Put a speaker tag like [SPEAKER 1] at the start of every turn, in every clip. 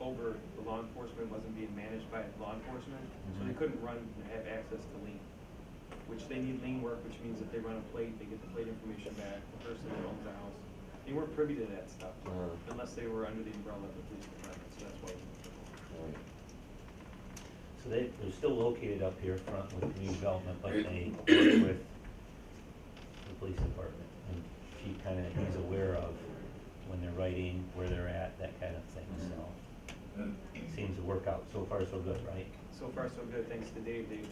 [SPEAKER 1] over the law enforcement, wasn't being managed by law enforcement, so they
[SPEAKER 2] Mhm.
[SPEAKER 1] couldn't run and have access to lien. Which they need lien work, which means that they run a plate, they get the plate information back, the person that owns the house. They weren't privy to that stuff,
[SPEAKER 2] Uh-huh.
[SPEAKER 1] unless they were under the umbrella of the police department, so that's why. we-
[SPEAKER 2] Right.
[SPEAKER 3] So they, they're still located up here front with community development, but they work with the police department. And she kind of is aware of when they're writing, where they're at, that kind of thing, so. Seems to work out, so far so good, right?
[SPEAKER 1] So far, so good, thanks to Dave, Dave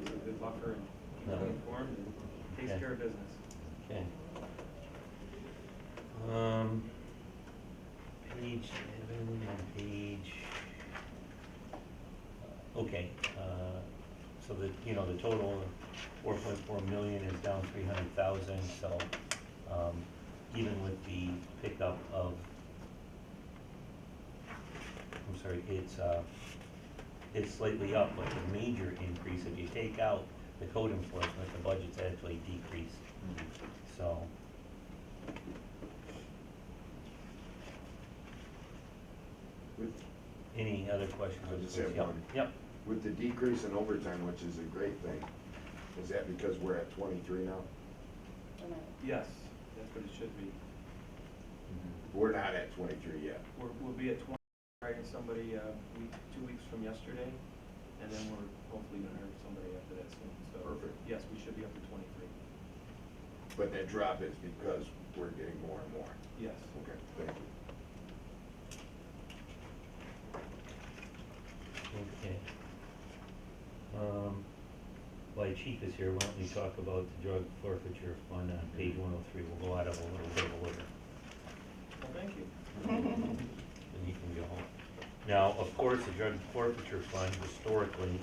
[SPEAKER 1] is a good buffer and keeps
[SPEAKER 3] Yeah.
[SPEAKER 1] me informed and takes
[SPEAKER 3] Okay.
[SPEAKER 1] care of business.
[SPEAKER 3] Okay. Um, page seven and page. Okay, uh, so the, you know, the total four point four million is down three hundred thousand, so, um, even with the pickup of, I'm sorry, it's, uh, it's slightly up, but the major increase, if you take out the code enforcement, the budget's actually decreased. So.
[SPEAKER 4] With,
[SPEAKER 3] Any other questions?
[SPEAKER 4] I just
[SPEAKER 3] Yep,
[SPEAKER 4] have one.
[SPEAKER 3] Yep,
[SPEAKER 4] with the decrease in overtime, which is a great thing, is that because we're at twenty-three now?
[SPEAKER 1] Yes, that's what it should be.
[SPEAKER 4] We're not at twenty-three yet.
[SPEAKER 1] We're, we'll be at twenty, hiring somebody, uh, week, two weeks from yesterday, and then we're hopefully gonna hire somebody after that soon, so.
[SPEAKER 4] Perfect.
[SPEAKER 1] Yes, we should be up to twenty-three,
[SPEAKER 4] But that drop is because we're getting more and more.
[SPEAKER 1] yes.
[SPEAKER 4] Okay, thank you.
[SPEAKER 3] okay. Um, While the chief is here, why don't we talk about the drug forfeiture fund on page one oh three, we'll go out of a little bit of order.
[SPEAKER 1] Well, thank you.
[SPEAKER 3] and you can go home. Now, of course, the drug forfeiture fund historically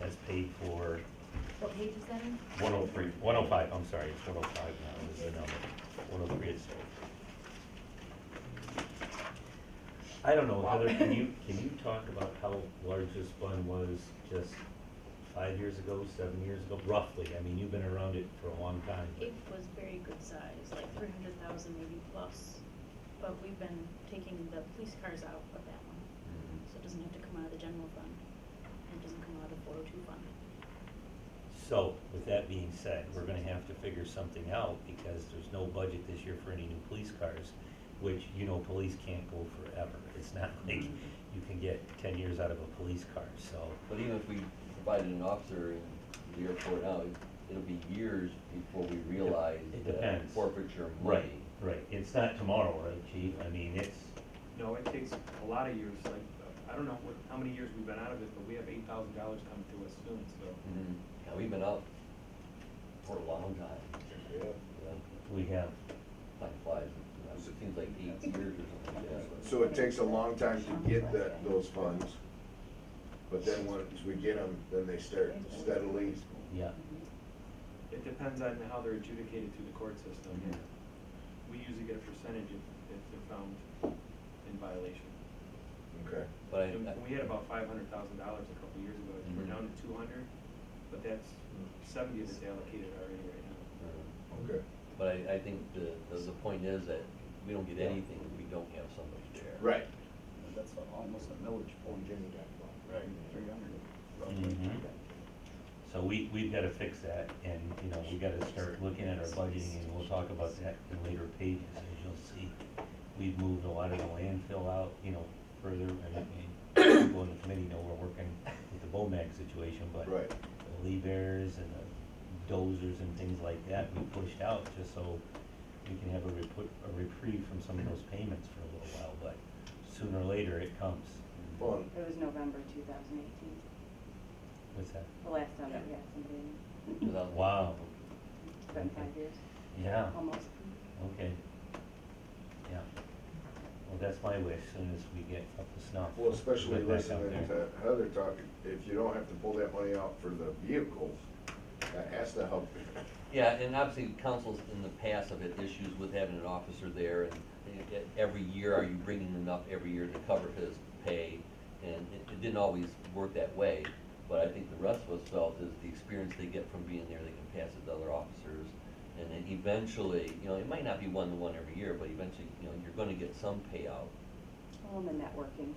[SPEAKER 3] has paid for
[SPEAKER 5] What page is that in?
[SPEAKER 3] 103, 105, I'm sorry, it's 105 now is the number, 103 is. I don't know, Heather, can you, can you talk about how large this fund was just five years ago, seven years ago, roughly? I mean, you've been around it for a long time.
[SPEAKER 5] It was very good size, like three hundred thousand maybe plus, but we've been taking the police cars out of that one. So it doesn't have to come out of the general fund, and it doesn't come out of four oh two fund.
[SPEAKER 3] So, with that being said, we're gonna have to figure something out because there's no budget this year for any new police cars, which, you know, police can't go forever. It's not like you can get 10 years out of a police car, so.
[SPEAKER 6] But even if we provided an officer in the airport now, it- it'll be years before we realize
[SPEAKER 3] it
[SPEAKER 6] the
[SPEAKER 3] depends.
[SPEAKER 6] forfeiture
[SPEAKER 3] Right,
[SPEAKER 6] money.
[SPEAKER 3] right, it's not tomorrow, right, chief, I mean, it's,
[SPEAKER 1] No, it takes a lot of years, like, uh, I don't know what, how many years we've been out of it, but we have eight thousand dollars coming to us soon, so.
[SPEAKER 6] Mhm. Yeah, we've been out for a long time. Yeah,
[SPEAKER 3] we have,
[SPEAKER 6] Time flies, it seems like eight years or something like that.
[SPEAKER 4] So it takes a long time to get that, those funds, but then once we get them, then they start steadily.
[SPEAKER 3] yeah,
[SPEAKER 5] Mm-hmm.
[SPEAKER 1] It depends on how they're adjudicated through the court system, yeah. We usually get a percentage if, if they're found in violation.
[SPEAKER 4] Okay.
[SPEAKER 6] But I,
[SPEAKER 1] And
[SPEAKER 6] I-
[SPEAKER 1] We had about five hundred thousand dollars a couple years ago, we're
[SPEAKER 6] Mhm.
[SPEAKER 1] down to two hundred, but that's
[SPEAKER 6] Mm.
[SPEAKER 1] seventy of it's allocated already right now.
[SPEAKER 4] Okay.
[SPEAKER 6] but I, I think the, the, the point is that we don't get anything if we don't have somebody there.
[SPEAKER 4] Right.
[SPEAKER 7] That's almost a millage point.
[SPEAKER 6] Right. Mm-hmm.
[SPEAKER 7] Three hundred.
[SPEAKER 3] Mhm. so we, we've gotta fix that, and, you know, we gotta start looking at our budgeting, and we'll talk about that in later pages, and you'll see. We've moved a lot of the landfill out, you know, further, and, and people in the committee know we're working with the BOMAG situation, but
[SPEAKER 4] Right.
[SPEAKER 3] the lead bearers and the dozers and things like that, we pushed out just so we can have a reput, a reprieve from some of those payments for a little while, but sooner or later it comes.
[SPEAKER 4] Fun.
[SPEAKER 8] It was November two thousand eighteen,
[SPEAKER 3] What's that?
[SPEAKER 8] the last time that we had somebody,
[SPEAKER 6] Without-
[SPEAKER 3] Wow,
[SPEAKER 8] it's been five years,
[SPEAKER 3] yeah,
[SPEAKER 8] almost.
[SPEAKER 3] okay. Yeah. Well, that's my wish, soon as we get up to snuff.
[SPEAKER 4] Well, especially
[SPEAKER 3] get back out
[SPEAKER 4] listening
[SPEAKER 3] there.
[SPEAKER 4] to Heather talk, if you don't have to pull that money out for the vehicles, that has to help.
[SPEAKER 6] Yeah, and obviously councils in the past have had issues with having an officer there and e- e- every year, are you bringing enough every year to cover his pay? And it, it didn't always work that way, but I think the rest of us felt is the experience they get from being there, they can pass it to other officers. And then eventually, you know, it might not be one to one every year, but eventually, you know, you're gonna get some payout.
[SPEAKER 8] Well, and the networking,